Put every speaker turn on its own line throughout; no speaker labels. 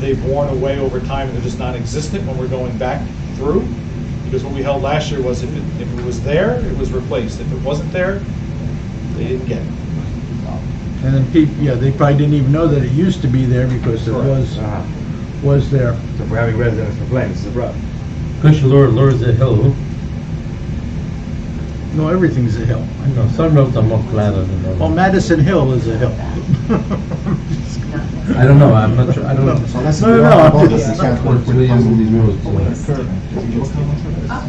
They've worn away over time, and they're just non-existent when we're going back through. Because what we held last year was if it, if it was there, it was replaced. If it wasn't there, they didn't get it.
And then people, yeah, they probably didn't even know that it used to be there because it
Correct.
was,
Uh-huh.
was there.
So we're having residents complain, this is a problem.
Kush Lure lures a hill.
No, everything's a hill.
I know some of them are flatter than
Well,
others.
Madison Hill is a hill.
I don't know, I'm not sure, I don't.
So let's
No, no,
be
no,
all
I'm
about
just-
this.
yeah,
Can't work
really
with puzzle
using
pieces.
these rules.
Curve. Is it your curve?
Ah,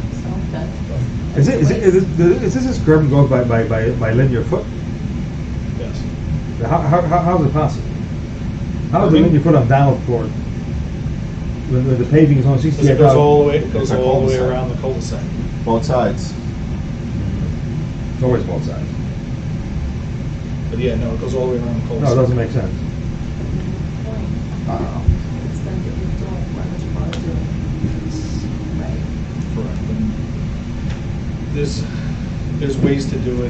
Is it, is it, is it, is this this curve goes by, by, by, by linear foot?
Yes.
How, how, how, how is it possible?
I
How is the
mean-
linear foot on Donald Ford? When, when the paving is only
Because
sixty-eight
it goes all the
dollars?
way, it goes
uh, It's a
all the way
cul-de-sac.
around the cul-de-sac.
Both sides.
It's always both sides.
But yeah, no, it goes all the way around the
No, it
cul-de-sac.
doesn't make sense. Uh-uh.
Uh,
Correct. And There's, there's ways to do it,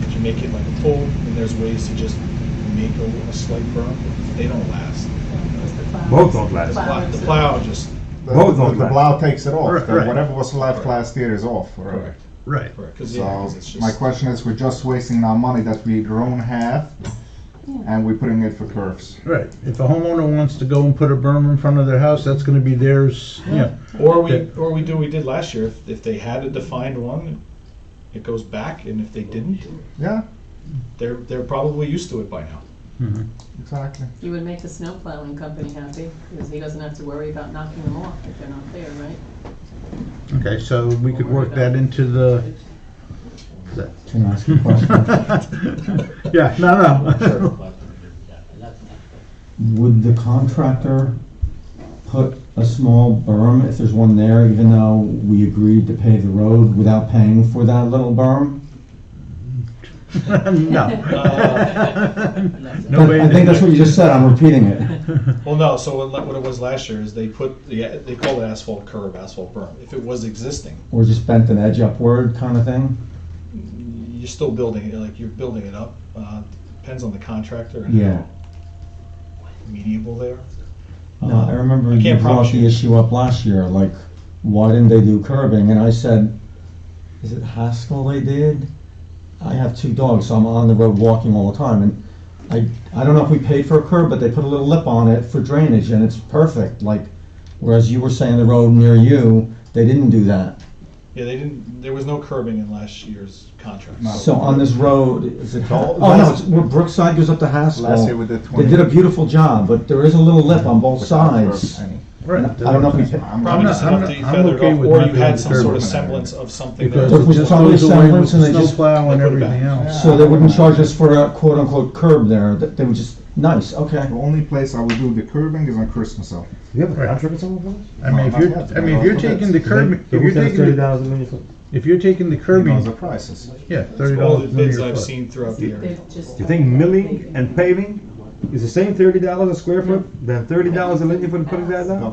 that you make it like a pool, and there's ways to just make a a slight berm. They don't last.
Both don't last.
The plow- The plow just,
The,
Both
the,
don't
the
like.
plow takes it off.
Right,
The-
right.
Whatever was left last year is off. already.
Correct.
Right.
because yeah, 'cause it's
So
just.
my question is, we're just wasting our money that we don't have, and we're putting it for curves.
Right. If a homeowner wants to go and put a berm in front of their house, that's gonna be theirs, yeah.
Or we,
Okay.
or we do, what we did last year, if, if they had a defined one, it goes back, and if they didn't,
Yeah,
they're, they're probably used to it by now.
Mhm.
exactly.
You would make the snow plowing company happy, because he doesn't have to worry about knocking them off if they're not there, right?
Okay, so we could work that into the.
Can I ask you a question?
Yeah, no, no.
Would the contractor put a small berm, if there's one there, even though we agreed to pave the road without paying for that little berm?
No. No way.
Uh, I think that's what you just said, I'm repeating it.
Well, no, so what le- what it was last year is they put, the they call it asphalt curb, asphalt berm. If it was existing,
Or just bent an edge upward kind of thing?
you're still building, it, like, you're building it up. Uh, Depends on the contractor and
Yeah.
how amenable they are.
No, I remember
Uh, I
you
can't
brought
promise
the
you.
issue up last year, like, why didn't they do curbing? And I said, is it Haskell they did? I have two dogs, so I'm on the road walking all the time, and I, I don't know if we paid for a curb, but they put a little lip on it for drainage, and it's perfect, like, whereas you were saying the road near you, they didn't do that.
Yeah, they didn't, there was no curbing in last year's contract.
No.
So on this road, is it,
all-
oh, no, it's where Brookside goes up to
Last year
Haskell.
we did
They
twenty.
did a beautiful job, but there is a little lip on both
without curves,
sides.
any.
Right.
I don't know if we paid.
I'm-
Probably
not-
just
I'm
enough
not-
that you
I'm
feathered
okay
off,
with
or
not
you
doing
had
the
some
curb
sort of
on that
semblance of something that
Because
was
If we
going
it just
saw
on.
goes away with
semblance and they
snow
just-
plow and
They put it back.
everything else.
So they wouldn't charge us for a quote-unquote curb there, that they were just, nice, okay.
The only place I will do the curbing is on Christmas Hill.
Do you have a
Right.
contract with someone for this?
I mean, if
No, not
you're,
yet.
I mean, if you're taking the curb, if
So
you're
who says
taking,
thirty
the-
dollars a linear foot?
if you're taking the
He knows
curbing,
the prices.
yeah, thirty
All the
dollars
bids
linear
I've
foot.
seen throughout the area.
They've just-
You think milling and paving is the same thirty dollars a square foot, than thirty dollars a linear foot putting that down?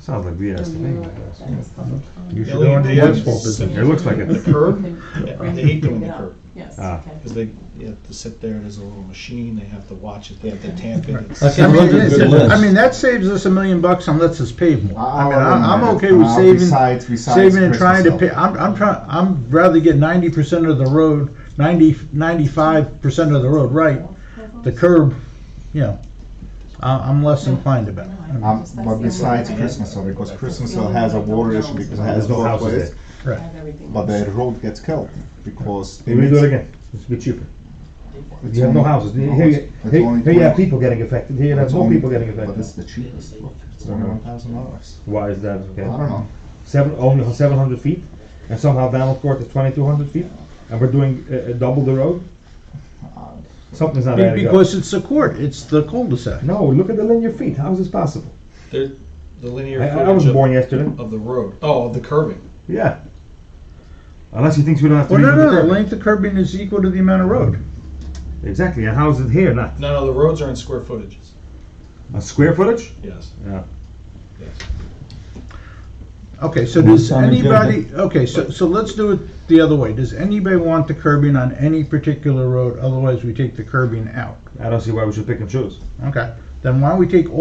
Sounds like BS to me.
You should
The only
go into
thing
the
is
asphalt business.
It looks like
The
it.
curb, yeah, they hate doing the curb.
Yes,
Ah.
okay.
Because they, you have to sit there, there's a little machine, they have to watch it, they have to tamp it. It's-
That's
I
a
mean,
really
it is.
good list.
I mean, that saves us a million bucks and lets us pave more. I
I'll
mean, I'm, I'm
eliminate it.
okay with
Uh,
saving,
besides- besides
saving and
Christmas
trying to
Hill.
pay, I'm, I'm trying, I'm rather get ninety percent of the road, ninety, ninety-five percent of the road right. The curb, you know, I, I'm less inclined about it. I mean,
Um, but besides Christmas Hill, because Christmas Hill has a water issue because it has
There's no
both
houses
ways,
I have everything.
but the road gets killed because.
They redo it again, it's a bit cheaper.
It's
You have no
only-
houses, here,
no,
here,
it's- it's
here
only
here you have
20.
people getting affected, here you have
It's
more
only-
people getting
But it's
affected.
the cheapest, look, it's only one thousand dollars.
Why is that?
I don't know.
Seven, only seven hundred feet, and somehow Donald Court is twenty-two hundred feet, and we're doing, uh, uh, double the road? Something's not adding up.
Because it's the court, it's the cul-de-sac.
No, look at the linear feet, how is this possible?
They're, the linear
I, I
footage
wasn't born
of,
yesterday,
of the road, oh, of the curving.
yeah. Unless he thinks we don't have to.
Well, no,
redo the
no, the
curb.
length of curbing is equal to the amount of road.
Exactly, and how is it here not?
No, no, the roads are in square footage,
A square footage?
yes.
Yeah.
Okay, so
Well,
does
sounded good.
anybody, okay, so, so let's do it the other way. Does anybody want the curbing on any particular road? Otherwise, we take the curbing out.
I don't see why we should pick and choose.
Okay, then why don't we take